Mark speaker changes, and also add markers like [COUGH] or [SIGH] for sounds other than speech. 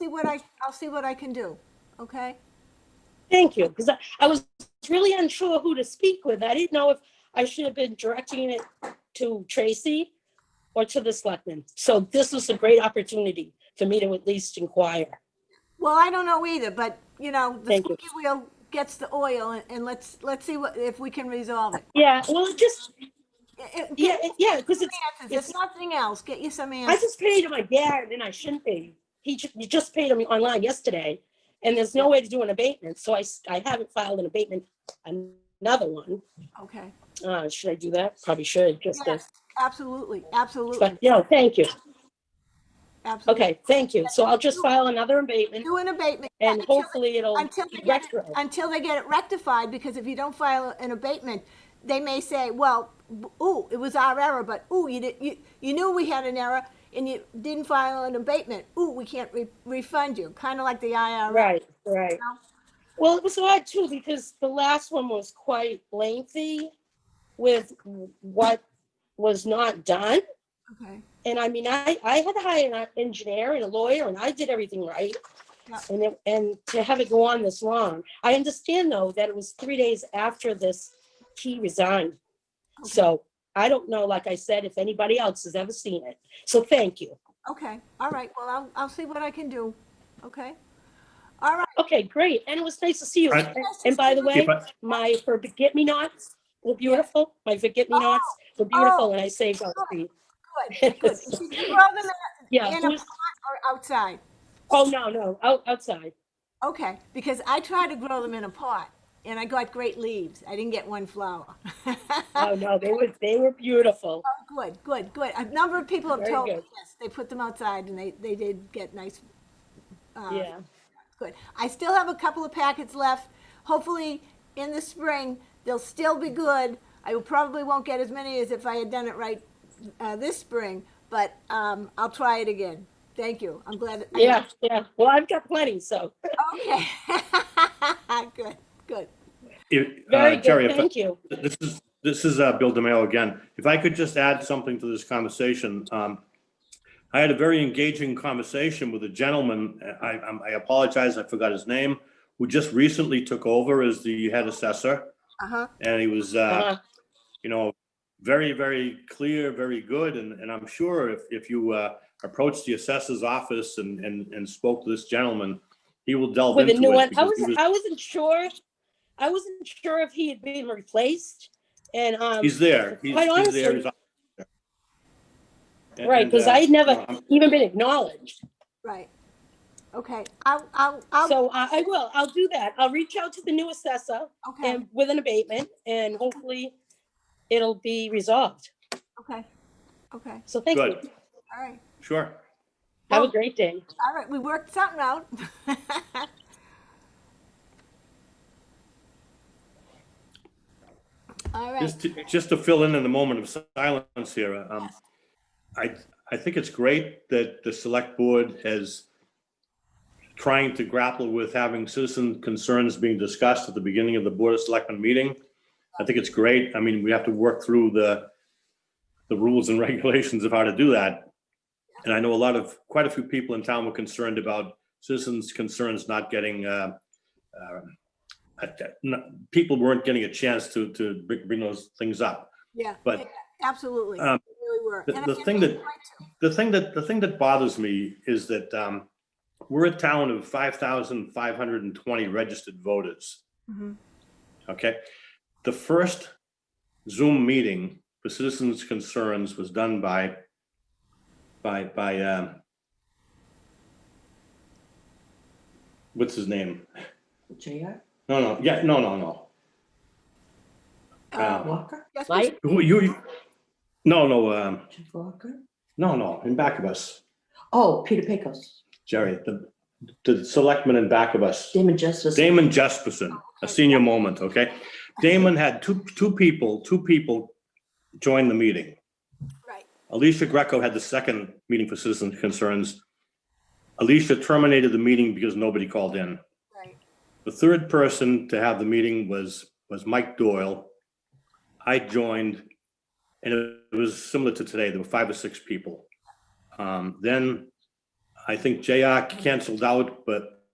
Speaker 1: what I, I'll see what I can do, okay?
Speaker 2: Thank you, because I, I was really unsure who to speak with. I didn't know if I should have been directing it to Tracy or to the selectmen. So this was a great opportunity for me to at least inquire.
Speaker 1: Well, I don't know either, but, you know, the
Speaker 2: Thank you.
Speaker 1: squeaky wheel gets the oil and- and let's, let's see what, if we can resolve it.
Speaker 2: Yeah, well, it just,
Speaker 1: It- it-
Speaker 2: yeah,
Speaker 1: Get
Speaker 2: it- yeah, because
Speaker 1: some
Speaker 2: it's,
Speaker 1: answers, if nothing else, get you some
Speaker 2: I
Speaker 1: answers.
Speaker 2: just paid my dad and I shouldn't be. He ju- he just paid him online yesterday and there's no way to do an abatement. So I, s- I haven't filed an abatement, another one.
Speaker 1: Okay,
Speaker 2: Uh, should I do that? Probably should, just to,
Speaker 1: yes, absolutely, absolutely,
Speaker 2: but, yeah, thank you.
Speaker 1: absolutely.
Speaker 2: Okay, thank you. So I'll just file another abatement
Speaker 1: Do an abatement. yeah,
Speaker 2: and
Speaker 1: until-
Speaker 2: hopefully it'll
Speaker 1: Until
Speaker 2: be
Speaker 1: they get, it-
Speaker 2: Oh, retro.
Speaker 1: until they get it rectified, because if you don't file an abatement, they may say, well, b- ooh, it was our error, but ooh, you did, you, you knew we had an error and you didn't file an abatement. Ooh, we can't re- refund you, kind of like the IRS.
Speaker 2: Right, right. Well, it was odd too, because the last one was quite lengthy with what was not done.
Speaker 1: Okay,
Speaker 2: And I mean, I, I had to hire an engineer and a lawyer and I did everything right.
Speaker 1: Yeah.
Speaker 2: And, it- and to have it go on this long, I understand though that it was three days after this, he resigned. So I don't know, like I said, if anybody else has ever seen it. So thank you.
Speaker 1: okay, all right, well, I'll, I'll see what I can do, okay? All right,
Speaker 2: Okay, great. And it was nice to see you.
Speaker 3: I-
Speaker 2: And by the way,
Speaker 3: If I,
Speaker 2: my forget me nots were beautiful. My forget me nots were beautiful and I saved all three. [LAUGHS]
Speaker 1: good, good. Did you grow them in a-
Speaker 2: Yeah.
Speaker 1: in a pot
Speaker 2: who's-
Speaker 1: or outside?
Speaker 2: Oh, no, no, out, outside.
Speaker 1: Okay, because I tried to grow them in a pot and I got great leaves. I didn't get one flower.
Speaker 2: Oh, no, they were, they were beautiful.
Speaker 1: Good, good, good. A number of people have
Speaker 2: Very
Speaker 1: told me,
Speaker 2: good.
Speaker 1: yes, they put them outside and they, they did get nice. uh,
Speaker 2: Yeah.
Speaker 1: Good. I still have a couple of packets left. Hopefully, in the spring, they'll still be good. I will- probably won't get as many as if I had done it right uh, this spring, but um, I'll try it again. Thank you. I'm glad. I-
Speaker 2: Yeah, yeah. Well, I've got plenty, so
Speaker 1: Okay. [LAUGHS] Good, good.
Speaker 3: if,
Speaker 2: very
Speaker 3: uh, Jerry,
Speaker 2: good.
Speaker 3: if I-
Speaker 2: Thank you.
Speaker 3: this is, this is uh, Bill DeMail again. If I could just add something to this conversation. um, I had a very engaging conversation with a gentleman, I, I'm- I apologize, I forgot his name, who just recently took over as the head assessor.
Speaker 1: Uh-huh.
Speaker 3: And he was, uh,
Speaker 2: Uh,
Speaker 3: you know, very, very clear, very good. And, and I'm sure if, if you uh, approach the assessor's office and, and, and spoke to this gentleman, he will delve
Speaker 2: With
Speaker 3: into
Speaker 2: a
Speaker 3: it.
Speaker 2: new one. I
Speaker 3: because he
Speaker 2: was, I wasn't sure. I wasn't sure if he had been replaced and, um,
Speaker 3: He's there. He's,
Speaker 2: quite
Speaker 3: he's there.
Speaker 2: honestly-
Speaker 3: He's on there. And-
Speaker 2: right,
Speaker 3: and,
Speaker 2: because
Speaker 3: uh,
Speaker 2: I had
Speaker 3: you know,
Speaker 2: never
Speaker 3: I'm-
Speaker 2: even been acknowledged.
Speaker 1: Right. Okay, I'll, I'll, I'll,
Speaker 2: So I, I will, I'll do that. I'll reach out to the new assessor
Speaker 1: okay,
Speaker 2: and with an abatement and hopefully it'll be resolved.
Speaker 1: okay, okay,
Speaker 2: So thank you.
Speaker 3: Good.
Speaker 1: all right,
Speaker 3: Sure.
Speaker 2: Have a great day.
Speaker 1: all right, we worked something out. [LAUGHS] All right,
Speaker 3: Just to, just to fill in in the moment of silence here, um, I, I think it's great that the select board has trying to grapple with having citizen concerns being discussed at the beginning of the Board of Selectmen meeting. I think it's great. I mean, we have to work through the, the rules and [LAUGHS] regulations of how to do that. And I know a lot of, quite a few people in town were concerned about citizens' concerns not getting, uh, um, uh, n- people weren't getting a chance to, to br- bring those things up.
Speaker 1: yeah,
Speaker 3: but,
Speaker 1: yeah, absolutely,
Speaker 3: um,
Speaker 1: we really were.
Speaker 3: the-
Speaker 1: And I
Speaker 3: the
Speaker 1: think
Speaker 3: thing
Speaker 1: they
Speaker 3: that-
Speaker 1: tried to.
Speaker 3: The thing that, the thing that bothers me is that um, we're a town of 5,520 registered voters,
Speaker 1: Mhm.
Speaker 3: okay? The first Zoom meeting for citizens' concerns was done by, by, by, um, what's his name?
Speaker 4: JR
Speaker 3: No, no, yeah, no, no, no.
Speaker 1: Uh,
Speaker 3: Um,
Speaker 4: Walker,
Speaker 1: yes, we
Speaker 2: Mike?
Speaker 3: Who, you, you- no, no, um,
Speaker 4: Jeff Walker.
Speaker 3: no, no, in back of us,
Speaker 4: Oh, Peter Pecos,
Speaker 3: Jerry, the, the selectman in back of us.
Speaker 4: Damon Justice.
Speaker 3: Damon Jesperson, a senior moment, okay? Damon had two, two people, two people join the meeting.
Speaker 1: Right.
Speaker 3: Alicia Greco had the second meeting for citizen concerns. Alicia terminated the meeting because nobody called in.
Speaker 1: Right.
Speaker 3: The third person to have the meeting was, was Mike Doyle. I joined, and it was similar to today, there were five or six people. Um, Then I think JR canceled out, but